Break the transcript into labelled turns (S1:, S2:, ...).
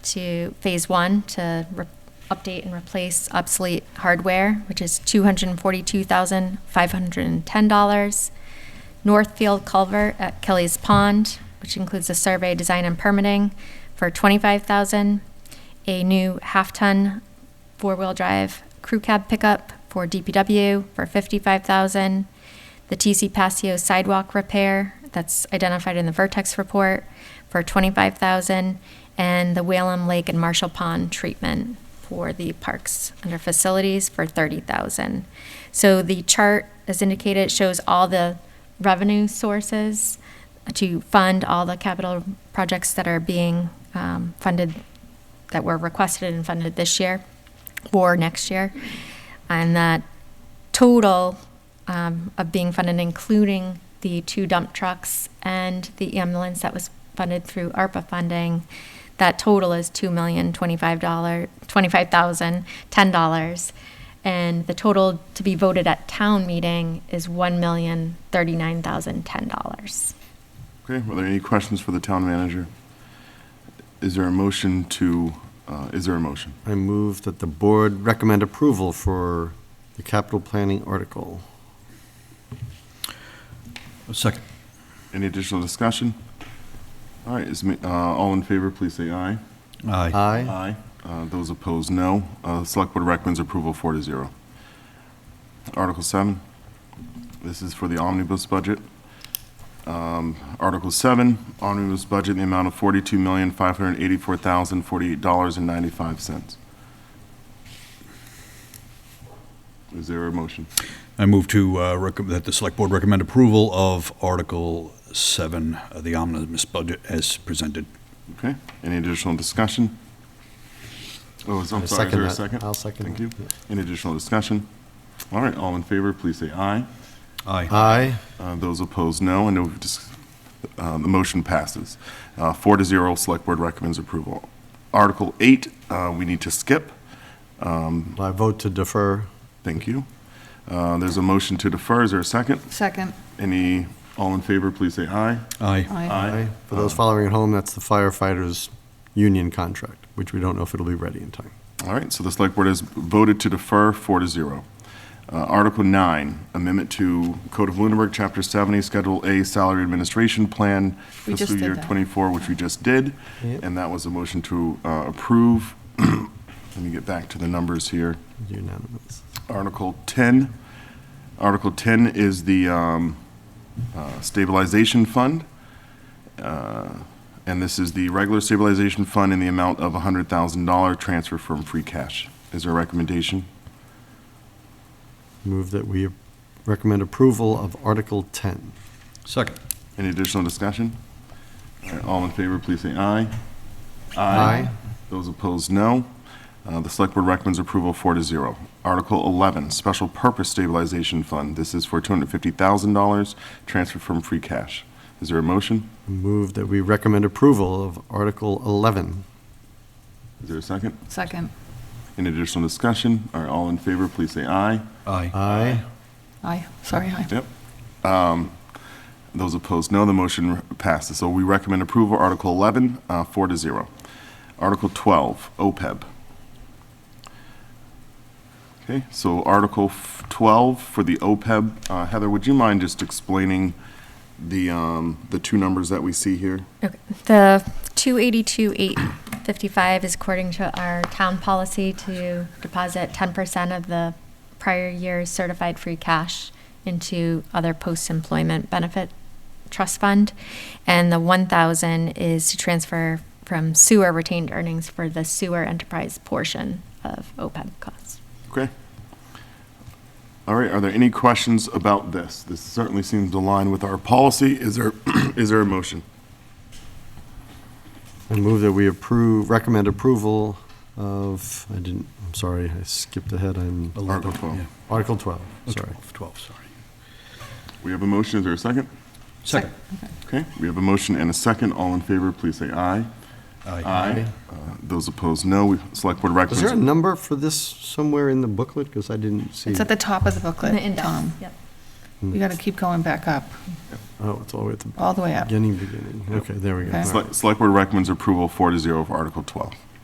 S1: to phase one to re- update and replace obsolete hardware, which is $242,510. Northfield Culvert at Kelly's Pond, which includes a survey, design, and permitting for 25000 A new half-ton four-wheel drive crew cab pickup for DPW for 55000 The TC Paseo sidewalk repair, that's identified in the Vertex report, for 25000 And the Whalum Lake and Marshall Pond treatment for the parks under facilities for 30000 So the chart, as indicated, shows all the revenue sources to fund all the capital projects that are being um, funded, that were requested and funded this year or next year. And that total um, of being funded, including the two dump trucks and the ambulance that was funded through ARPA funding, that total is two million twenty-five dollar, twenty-five thousand, ten dollars. And the total to be voted at town meeting is one million thirty-nine thousand, ten dollars.
S2: Okay, were there any questions for the town manager? Is there a motion to, uh, is there a motion?
S3: I move that the board recommend approval for the capital planning article.
S4: A second.
S2: Any additional discussion? All right, is, ma- uh, all in favor, please say aye.
S4: Aye.
S3: Aye.
S2: Uh, Those opposed, no. Uh, Select Board recommends approval four to zero. Article seven, this is for the omnibus budget. Um, Article seven, omnibus budget in the amount of forty-two million, five hundred and eighty-four thousand, forty-eight dollars and ninety-five cents. Is there a motion?
S4: I move to, uh, recom- that the select board recommend approval of Article 7, uh, the omnibus budget as presented.
S2: Okay, any additional discussion? Oh, is- I'm
S3: I
S2: sorry, is there a
S3: second that.
S2: 2nd
S3: I'll second
S2: Thank
S3: that,
S2: you.
S3: yeah.
S2: Any additional discussion? All right, all in favor, please say aye.
S4: Aye.
S3: Aye.
S2: Uh, Those opposed, no. And we've dis- uh, the motion passes. Uh, Four to zero, Select Board recommends approval. Article eight, uh, we need to skip.
S3: I vote to defer.
S2: Thank you. Uh, There's a motion to defer. Is there a second?
S5: Second.
S2: Any, all in favor, please say aye.
S4: Aye.
S2: Aye.
S3: For those following at home, that's the firefighters' union contract, which we don't know if it'll be ready in time.
S2: All right, so the Select Board has voted to defer four to zero. Uh, Article nine, amendment to Code of Lunenburg, Chapter 70, Schedule A, Salary Administration Plan,
S5: We just
S2: fiscal
S5: did
S2: year
S5: that.
S2: '24, which we just did.
S3: Yep.
S2: And that was a motion to uh, approve. Let me get back to the numbers here.
S3: Unanimous.
S2: Article 10. Article 10 is the um, uh, stabilization fund. Uh, And this is the regular stabilization fund in the amount of $100,000 transfer from free cash. Is there a recommendation?
S3: Move that we recommend approval of Article 10.
S4: Second.
S2: Any additional discussion? All right, All in favor, please say aye.
S3: Aye.
S2: Those opposed, no. Uh, The Select Board recommends approval four to zero. Article 11, Special Purpose Stabilization Fund. This is for $250,000 transferred from free cash. Is there a motion?
S3: Move that we recommend approval of Article 11.
S2: Is there a second?
S5: Second.
S2: Any additional discussion? All right, all in favor, please say aye.
S4: Aye.
S3: Aye.
S5: Aye. Sorry, aye.
S2: Yep. Um, Those opposed, no. The motion passes. So we recommend approval, Article 11, uh, 4 to 0. Article 12, OPEB. Okay, so Article f- 12 for the OPEB. Uh, Heather, would you mind just explaining the, um, the two numbers that we see here?
S1: Okay. The two eighty-two, eight fifty-five is according to our town policy to deposit ten percent of the prior year's certified free cash into other post-employment benefit trust fund. And the one thousand is to transfer from sewer retained earnings for the sewer enterprise portion of OPEB costs.
S2: Okay. All right, are there any questions about this? This certainly seems to align with our policy. Is there, is there a motion?
S3: I move that we approve, recommend approval of, I didn't, I'm sorry, I skipped ahead, I'm,
S2: Article 12.
S3: Article 12, sorry.
S4: 12, 12, sorry.
S2: We have a motion, is there a second?
S4: Second.
S2: Okay, we have a motion and a second. All in favor, please say aye.
S4: Aye.
S2: Uh, Those opposed, no. We- Select Board
S3: Is there a
S2: recommends.
S3: number for this somewhere in the booklet? Because I didn't see.
S5: It's at the top of the
S1: The
S5: booklet,
S1: index,
S5: Tom.
S1: yep.
S5: You got to keep going back up,
S3: Oh, it's all the way at the
S5: all the way up.
S3: beginning, beginning. Okay, there we go.
S5: Okay.
S3: All right.
S2: Select Select Board recommends approval four to zero of Article 12.